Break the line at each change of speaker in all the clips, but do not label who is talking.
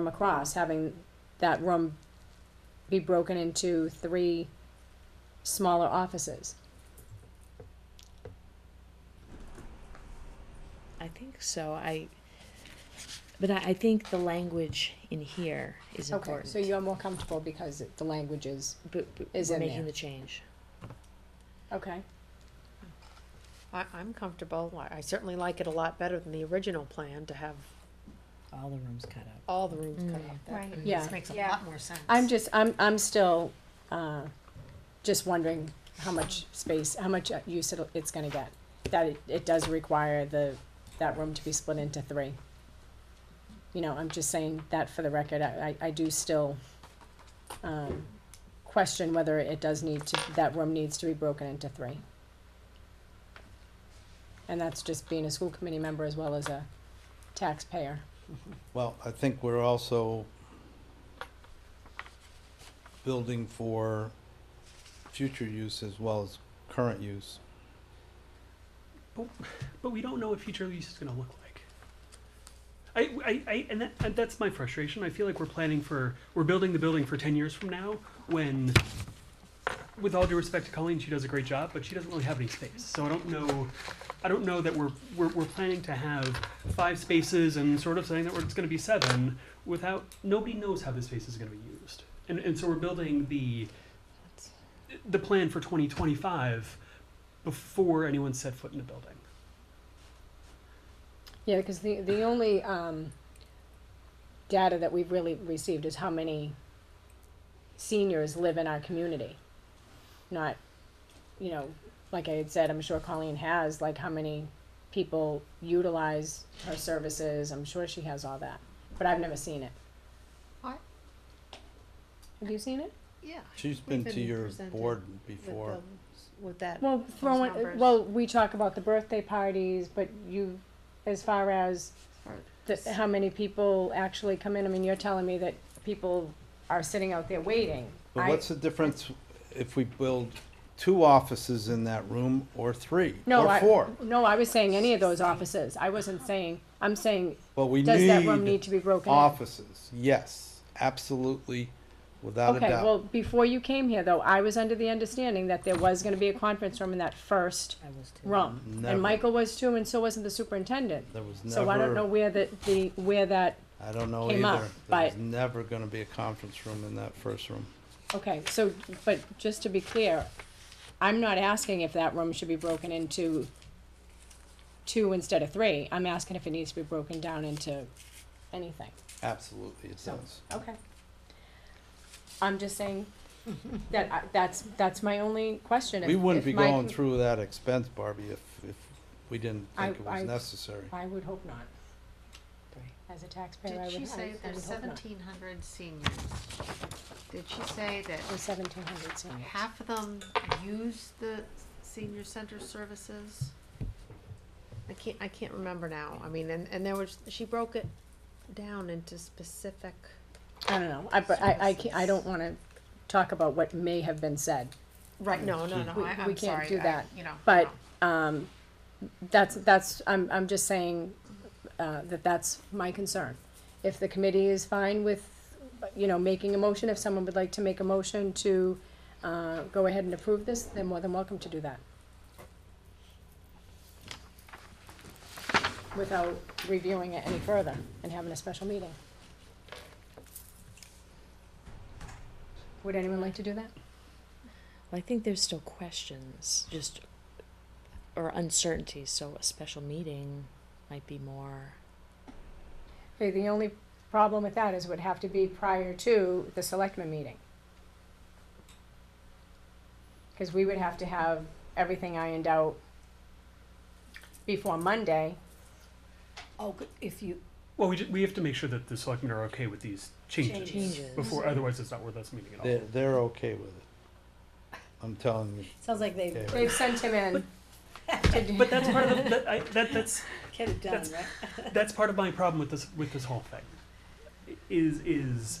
from across, having that room be broken into three smaller offices.
I think so. I, but I, I think the language in here is
Okay,
important.
so you're more comfortable because it- the language is,
But, but
is
we're
in
making
there.
the change.
okay,
I, I'm comfortable. I- I certainly like it a lot better than the original plan to have
All the rooms cut up.
all the rooms cut
Mm.
off.
Right.
Yeah.
This makes a
Yeah.
lot more sense.
I'm just, I'm, I'm still, uh, just wondering how much space, how much uh, use it'll, it's gonna get. That it, it does require the, that room to be split into three. You know, I'm just saying that for the record, I, I I do still, um, question whether it does need to, that room needs to be broken into three. And that's just being a school committee member as well as a taxpayer.
Well, I think we're also building for future use as well as current use.
but we don't know what future use is going to look like. I, I, I and that, and that's my frustration. I feel like we're planning for we're building the building for ten years from now. When, with all due respect to Colleen, she does a great job, but she doesn't really have any space. So I don't know, I don't know that we're we're, we're planning to have five spaces and sort of saying that we're, it's going to be seven without nobody knows how this space is going to be used. And and so we're building the the plan for twenty twenty five before anyone set foot in the building.
Yeah, because the, the only, um, data that we've really received is how many seniors live in our community. Not, you know, like I had said, I'm sure Colleen has, like how many people utilize her services, I'm sure she has all that, but I've never seen it.
I-
Have you seen it?
Yeah.
She's
We've
been to your
presented
board
with
before.
those- With that.
Well,
those
throwing,
numbers.
well, we talk about the birthday parties, but you, as far as
Or-
the, how many people actually come in, I mean, you're telling me that people are sitting out there waiting.
But
I-
what's the difference if we build two offices in that room or three
No,
or
I-
four?
No, I was saying any of those offices, I wasn't saying, I'm saying,
But we
does that room need
need
to be broken? in?
offices, yes, absolutely, without a
Okay, well,
doubt.
before you came here, though, I was under the understanding that there was gonna be a conference room in that first
I was too.
room.
Never.
And Michael was too, and so wasn't the superintendent.
There was
So I don't know
never,
where the, the, where that
I don't know
came up,
either. There was
but-
never gonna be a conference room in that first room.
Okay, so, but just to be clear, I'm not asking if that room should be broken into two instead of three. I'm asking if it needs to be broken down into anything.
Absolutely, it
So-
does.
Okay. I'm just saying that, I- that's, that's my only question. If-
We wouldn't
if
be
my-
going through that expense, Barbie, if, if we didn't
I-
think it
I-
was necessary.
I would hope not.
Right.
As a taxpayer,
Did
I would, I
she
I
say
would
there's
hope not.
seventeen hundred seniors? Did she say that
Or seventeen hundred seniors.
half of them use the senior center services?
I can't, I can't remember now. I mean, and, and there was, she broke it down into specific.
I don't know. I, but I, I can't, I don't wanna talk about what may have been said.
Right. No, no, no,
We-
I,
we
I'm
can't
sorry.
do
I-
that,
You know.
But, um, that's, that's, I'm, I'm just saying, uh, that that's my concern. If the committee is fine with, you know, making a motion, if someone would like to make a motion to, uh, go ahead and approve this, they're more than welcome to do that. Without reviewing it any further and having a special meeting. Would anyone like to do that?
Well, I think there's still questions, just or uncertainties. So a special meeting might be more.
Okay, the only problem with that is it would have to be prior to the selectmen meeting. Cause we would have to have everything ironed out before Monday.
Oh, if you,
Well, we, ju- we have to make sure that the selectmen are okay with these changes,
Changes.
before, otherwise it's not worth us meeting at all.
They're, they're okay with it. I'm telling you.
sounds like they
they-
They've sent him in. to do-
But that's part of the, that, I, that that's
get it done,
That's-
right?
that's part of my problem with this with this whole thing. Is is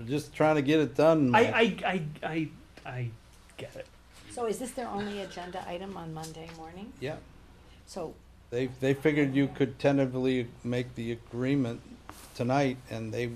We're just trying to get it done.
I
Mike.
I I I, I get it.
So is this their only agenda item on Monday morning?
Yeah,
So
they, they figured you could tentatively make the agreement tonight and they